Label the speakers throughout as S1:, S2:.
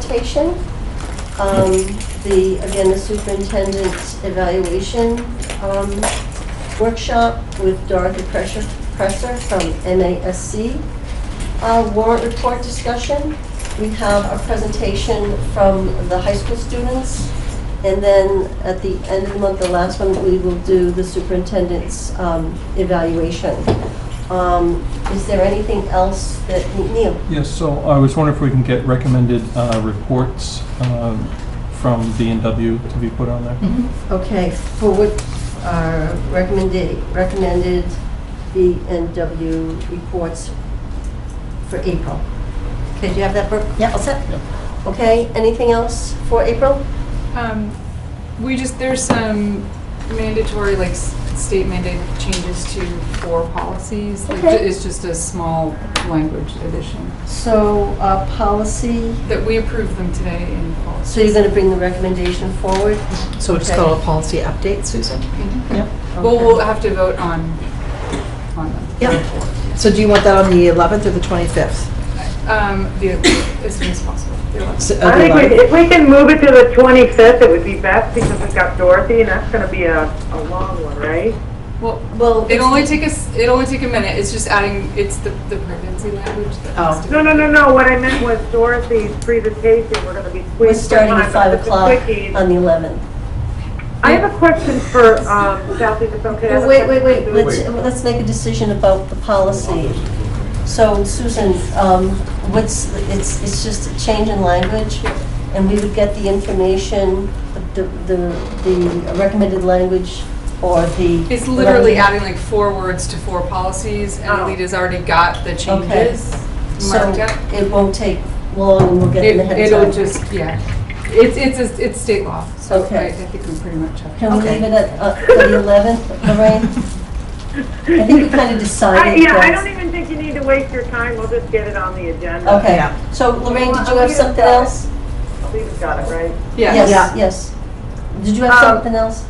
S1: station. Um, The, again, the superintendent's evaluation um, workshop with Dorothy Presser Presser from MASC. Uh, Warrant report discussion. We have a presentation from the high school students. And then at the end of the month, the last one, we will do the superintendent's um, evaluation. Um, Is there anything else that, Neil?
S2: Yes, so I was wondering if we can get recommended uh, reports um, from B and W to be put on there?
S1: Okay, for what are recommended, recommended B and W reports for April? Okay, do you have that, Brooke?
S3: Yeah.
S1: All set?
S2: Yeah.
S1: Okay, anything else for April?
S4: Um, we just, there's some mandatory, like, s- state mandated changes to four policies. Like,
S1: Okay.
S4: It's just a small language addition,
S1: So, uh, policy,
S4: that we approved them today in policy.
S1: so you're gonna bring the recommendation forward?
S3: So we'll just
S1: Okay.
S3: call a policy update, Susan?
S4: Mhm.
S3: Yep.
S4: Well, we'll have to vote on, on them.
S3: Yep. So do you want that on the 11th or the 25th?
S4: Um, the, as soon as possible. The eleventh.
S3: S- uh, the
S5: I think
S3: 11th.
S5: we- if we can move it to the 25th, it would be best because we've got Dorothy and that's going to be a, a long one, right?
S4: Well,
S1: Well,
S4: it'll only take us, it'll only take a minute, it's just adding, it's the, the pregnancy language that has
S3: Oh.
S4: to be.
S5: No, no, no, no, what I meant was Dorothy's presentation, we're going to be squeezed.
S1: we're
S5: for
S1: starting
S5: time,
S1: at
S5: but
S1: 5
S5: it's a
S1: o'clock
S5: quickie.
S1: on the 11th.
S5: I have a question for, um, Southie, if it's okay. I have a
S1: Wait, wait,
S5: question
S1: wait,
S5: for
S1: let's,
S5: Susan.
S1: let's make a decision about the policy. So Susan, um, what's, it's, it's just a change in language, and we would get the information, the, the, the recommended language, or the.
S4: It's literally adding like four words to four policies, and
S5: Oh.
S4: Alita's already got the changes
S1: So
S4: marked up.
S1: it won't take long, and we'll get it
S4: It-
S1: ahead of time.
S4: It'll just, yeah, it's, it's, a- it's state law, so I
S1: Okay.
S4: I think we pretty much have.
S1: Can we
S3: Okay.
S1: leave it at, uh, for the 11th, Lorraine? I think we kind of
S5: I-
S1: decided
S5: Yeah,
S1: that.
S5: I don't e-, even think you need to waste your time, we'll just get it on the agenda.
S3: Yeah.
S1: Okay, so Lorraine, did you have something else?
S5: We've got it, right?
S4: Yeah.
S1: Yes, yes. Did you have
S5: Um,
S1: something else?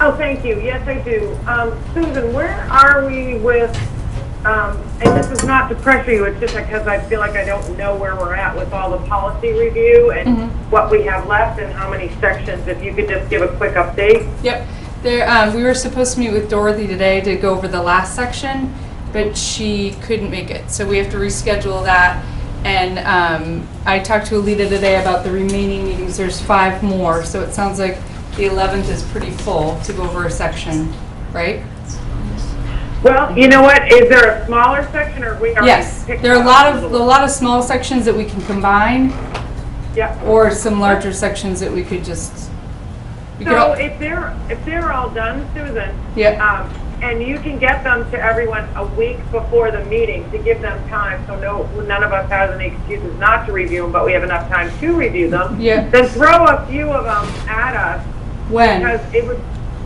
S5: Oh, thank you. Yes, I do. Um, Susan, where are we with, um, and this is not to pressure you, it's just because I feel like I don't know where we're at with all the policy review and
S4: Mm-hmm.
S5: what we have left and how many sections. If you could just give a quick update.
S4: Yep. There, um, we were supposed to meet with Dorothy today to go over the last section, but she couldn't make it, so we have to reschedule that. And, um, I talked to Alita today about the remaining meetings, there's five more, so it sounds like the eleventh is pretty full to go over a section, right?
S5: Well, you know what? Is there a smaller section or we are?
S4: Yes, there are a lot of, a lot of small sections that we can combine,
S5: Yeah.
S4: or some larger sections that we could just. we could
S5: So
S4: all-
S5: if they're, if they're all done, Susan.
S4: Yeah.
S5: Um, and you can get them to everyone a week before the meeting to give them time, so no, none of us has any excuses not to review them, but we have enough time to review them.
S4: Yeah.
S5: Then throw a few of them at us,
S4: When?
S5: because it would,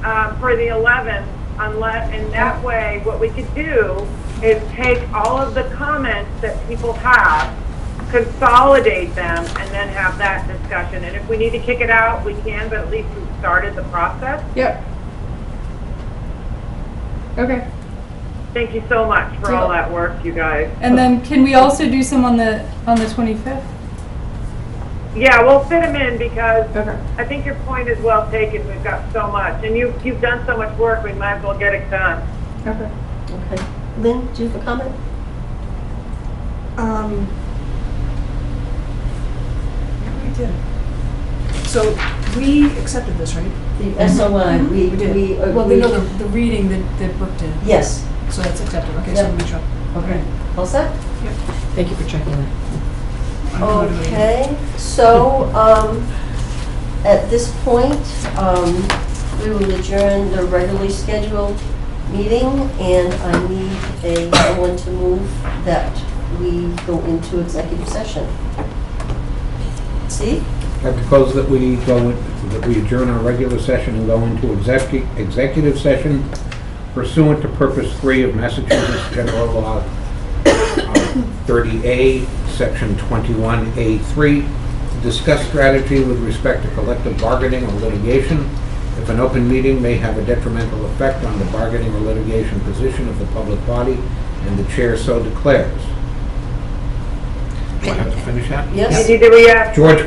S5: uh, for the 11th, unless, and that way, what we could do is take all of the comments that people have, consolidate them, and then have that discussion. And if we need to kick it out, we can, but at least we started the process.
S4: Yep. Okay.
S5: Thank you so much for all that work, you guys.
S4: And then can we also do some on the, on the 25th?
S5: Yeah, we'll fit them in because
S4: Okay.
S5: I think your point is well taken. We've got so much, and you, you've done so much work, we might as well get it done.
S4: Okay.
S1: Okay. Lynn, do you have a comment?
S3: Um, yeah, we did. So we accepted this, right? Mm-hmm.
S1: The SOI, we,
S3: We did.
S1: we. uh,
S3: Well,
S1: we-
S3: we know the, the reading that, that Brooke did,
S1: Yes.
S3: so that's accepted, okay, so
S1: Yeah.
S3: we make sure.
S1: Okay. All set?
S3: Thank you for checking that.
S1: Okay, so, um, at this point, um, we will adjourn the regularly scheduled meeting, and I need a, someone to move that we go into executive session. See?
S6: I propose that we go, in- that we adjourn our regular session and go into execu- executive session pursuant to purpose three of Massachusetts General Law uh, 30A, Section 21A3, to discuss strategy with respect to collective bargaining or litigation. If an open meeting may have a detrimental effect on the bargaining or litigation position of the public body, and the chair so declares. Do I have to finish that?
S1: Yes?
S5: You need to react
S6: George,